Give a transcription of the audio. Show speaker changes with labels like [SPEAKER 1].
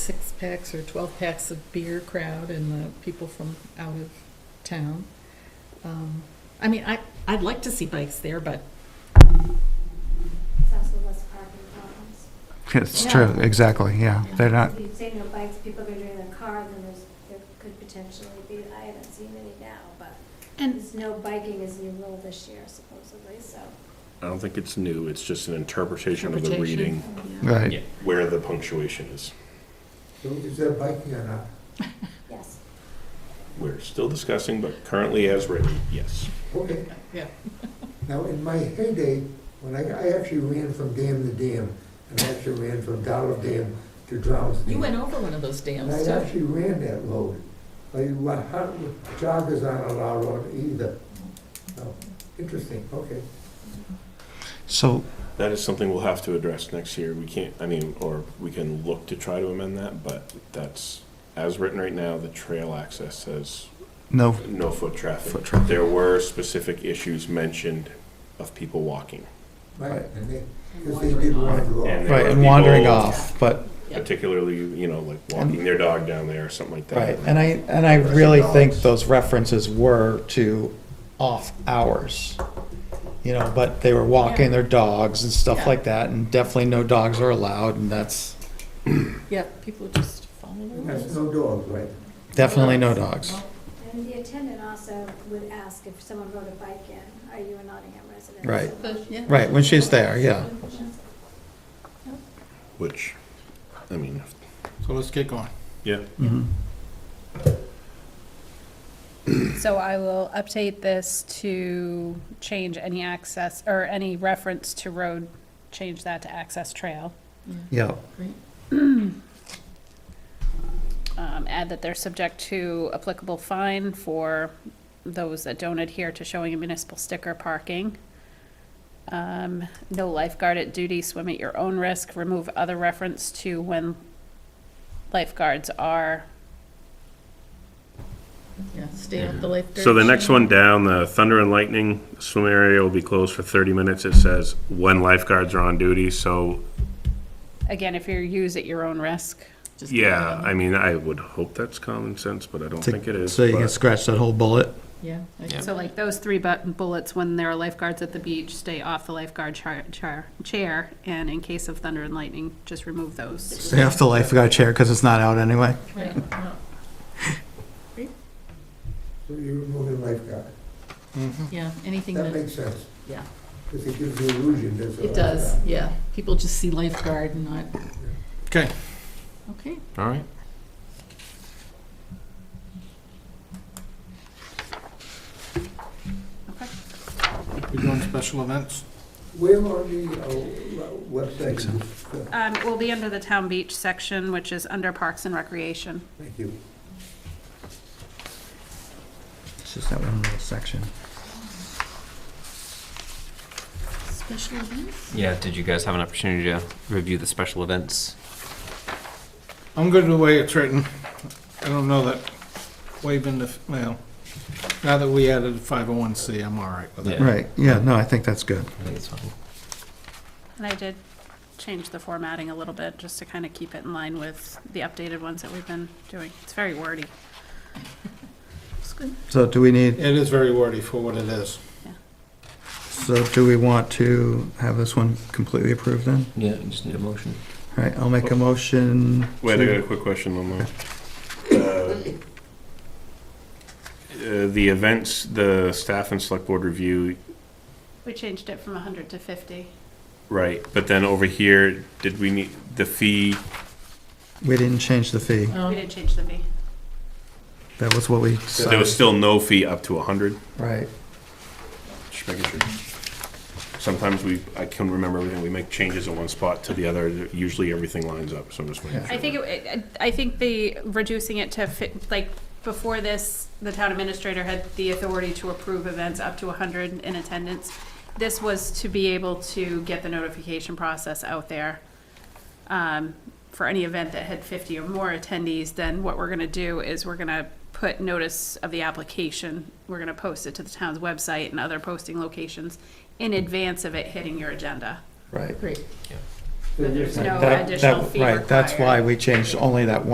[SPEAKER 1] packs or twelve packs of beer crowd and the people from out of town. Um, I mean, I, I'd like to see bikes there, but
[SPEAKER 2] It's also less parking problems.
[SPEAKER 3] It's
[SPEAKER 1] Yeah.
[SPEAKER 3] true, exactly, yeah. They're not,
[SPEAKER 2] If you say no bikes, people go doing their car, then there's, there could potentially be, I haven't seen any now, but
[SPEAKER 1] and
[SPEAKER 2] there's no biking is new rule this year supposedly, so.
[SPEAKER 4] I don't think it's new, it's just an interpretation of the reading.
[SPEAKER 3] right.
[SPEAKER 4] Yeah, Where the punctuation is.
[SPEAKER 5] So is there biking or not?
[SPEAKER 2] Yes.
[SPEAKER 4] We're still discussing, but currently as written, yes.
[SPEAKER 5] Okay,
[SPEAKER 1] yeah,
[SPEAKER 5] now in my heyday, when I, I actually ran from dam to dam, and I actually ran from Dollar Dam to Drowns Dam.
[SPEAKER 1] you went over one of those
[SPEAKER 5] And
[SPEAKER 1] dams,
[SPEAKER 5] I
[SPEAKER 1] so,
[SPEAKER 5] actually ran that road. I, wa- how- joggers aren't allowed on either. So, Interesting, okay.
[SPEAKER 3] So,
[SPEAKER 4] That is something we'll have to address next year. We can't, I mean, or we can look to try to amend that, but that's, as written right now, the trail access says
[SPEAKER 3] no,
[SPEAKER 4] no foot traffic.
[SPEAKER 3] Foot traffic.
[SPEAKER 4] There were specific issues mentioned of people walking,
[SPEAKER 5] Right,
[SPEAKER 3] Right.
[SPEAKER 5] and they, because they did want to go
[SPEAKER 4] And
[SPEAKER 5] off.
[SPEAKER 3] right, and wandering off, but,
[SPEAKER 1] Yeah.
[SPEAKER 4] particularly, you know, like walking their dog down there or something like that.
[SPEAKER 3] right, and I, and I
[SPEAKER 4] Aggressive
[SPEAKER 3] really think
[SPEAKER 4] dogs.
[SPEAKER 3] those references were to off hours. You know, but they were walking their dogs and stuff
[SPEAKER 1] Yeah.
[SPEAKER 3] like that, and definitely no dogs are allowed, and that's
[SPEAKER 1] yeah, people just follow the
[SPEAKER 5] That's
[SPEAKER 1] rules.
[SPEAKER 5] no dogs, right?
[SPEAKER 3] definitely no dogs.
[SPEAKER 2] And the attendant also would ask if someone rode a bike in, are you a Nottingham resident?
[SPEAKER 3] Right.
[SPEAKER 2] So-
[SPEAKER 1] Yeah.
[SPEAKER 3] Right, when she's there, yeah.
[SPEAKER 4] Which, I mean,
[SPEAKER 6] So let's get going.
[SPEAKER 4] yeah,
[SPEAKER 3] Mhm.
[SPEAKER 7] So I will update this to change any access, or any reference to road, change that to access trail.
[SPEAKER 3] Yeah,
[SPEAKER 1] Great.
[SPEAKER 7] Um, Add that they're subject to applicable fine for those that don't adhere to showing a municipal sticker parking. Um, No lifeguard at duty, swim at your own risk, remove other reference to when lifeguards are,
[SPEAKER 1] Yeah, stay off the lifeguard.
[SPEAKER 4] So the next one down, the thunder and lightning swim area will be closed for thirty minutes. It says when lifeguards are on duty, so,
[SPEAKER 7] again, if you're use at your own risk.
[SPEAKER 1] Just-
[SPEAKER 4] yeah, I mean, I would hope that's common sense, but I don't think it is.
[SPEAKER 3] so you can
[SPEAKER 4] but-
[SPEAKER 3] scratch that whole bullet.
[SPEAKER 1] Yeah. I guess.
[SPEAKER 7] So like those three bu- bullets, when there are lifeguards at the beach, stay off the lifeguard char- char- chair, and in case of thunder and lightning, just remove those.
[SPEAKER 3] Stay off the lifeguard chair because it's not out anyway.
[SPEAKER 1] Right, no,
[SPEAKER 5] So you're removing lifeguard.
[SPEAKER 1] Yeah, anything that,
[SPEAKER 5] That makes sense,
[SPEAKER 1] yeah,
[SPEAKER 5] because it gives the illusion there's a
[SPEAKER 1] it does, yeah. People just see lifeguard and not,
[SPEAKER 6] Okay.
[SPEAKER 1] okay.
[SPEAKER 4] All right.
[SPEAKER 7] Okay.
[SPEAKER 6] We're doing special events.
[SPEAKER 5] Where on the uh, website? is this?
[SPEAKER 7] Um, it will be under the town beach section, which is under Parks and Recreation.
[SPEAKER 5] Thank you.
[SPEAKER 3] It's just that one little section.
[SPEAKER 1] Special events?
[SPEAKER 8] Yeah, did you guys have an opportunity to review the special events?
[SPEAKER 6] I'm good with the way it's written. I don't know that waiving the, well, now that we added 501C, I'm all right with it.
[SPEAKER 8] Yeah.
[SPEAKER 3] Right, yeah, no, I think that's good.
[SPEAKER 8] I think it's fine.
[SPEAKER 7] And I did change the formatting a little bit, just to kind of keep it in line with the updated ones that we've been doing. It's very wordy.
[SPEAKER 1] It's good.
[SPEAKER 3] So do we need,
[SPEAKER 6] It is very wordy for what it is.
[SPEAKER 3] so do we want to have this one completely approved then?
[SPEAKER 8] Yeah, you just need a motion.
[SPEAKER 3] All right, I'll make a motion.
[SPEAKER 4] Wait, I
[SPEAKER 3] to-
[SPEAKER 4] got a quick question on that. Uh, The events, the staff and select board review,
[SPEAKER 7] We changed it from hundred to fifty.
[SPEAKER 4] right, but then over here, did we need, the fee,
[SPEAKER 3] We didn't change the fee.
[SPEAKER 7] We
[SPEAKER 1] Um,
[SPEAKER 7] didn't change the fee.
[SPEAKER 3] That was what we
[SPEAKER 4] there was
[SPEAKER 3] decided.
[SPEAKER 4] still no fee up to a hundred?
[SPEAKER 3] Right,
[SPEAKER 4] Just making sure. Sometimes we, I can remember everything, we make changes in one spot to the other, usually everything lines up, so I'm just making
[SPEAKER 3] Yeah.
[SPEAKER 4] sure.
[SPEAKER 7] I think, it- I think the, reducing it to, fi- like, before this, the town administrator had the authority to approve events up to 100 in attendance. This was to be able to get the notification process out there um, for any event that had 50 or more attendees, then what we're going to do is we're going to put notice of the application, we're going to post it to the town's website and other posting locations in advance of it hitting your agenda.
[SPEAKER 3] right.
[SPEAKER 1] Great.
[SPEAKER 5] So you're
[SPEAKER 7] There's
[SPEAKER 5] saying-
[SPEAKER 7] no
[SPEAKER 3] That-
[SPEAKER 7] additional
[SPEAKER 3] that-
[SPEAKER 7] fee
[SPEAKER 3] Right, that's
[SPEAKER 7] required.
[SPEAKER 3] why we changed only that one.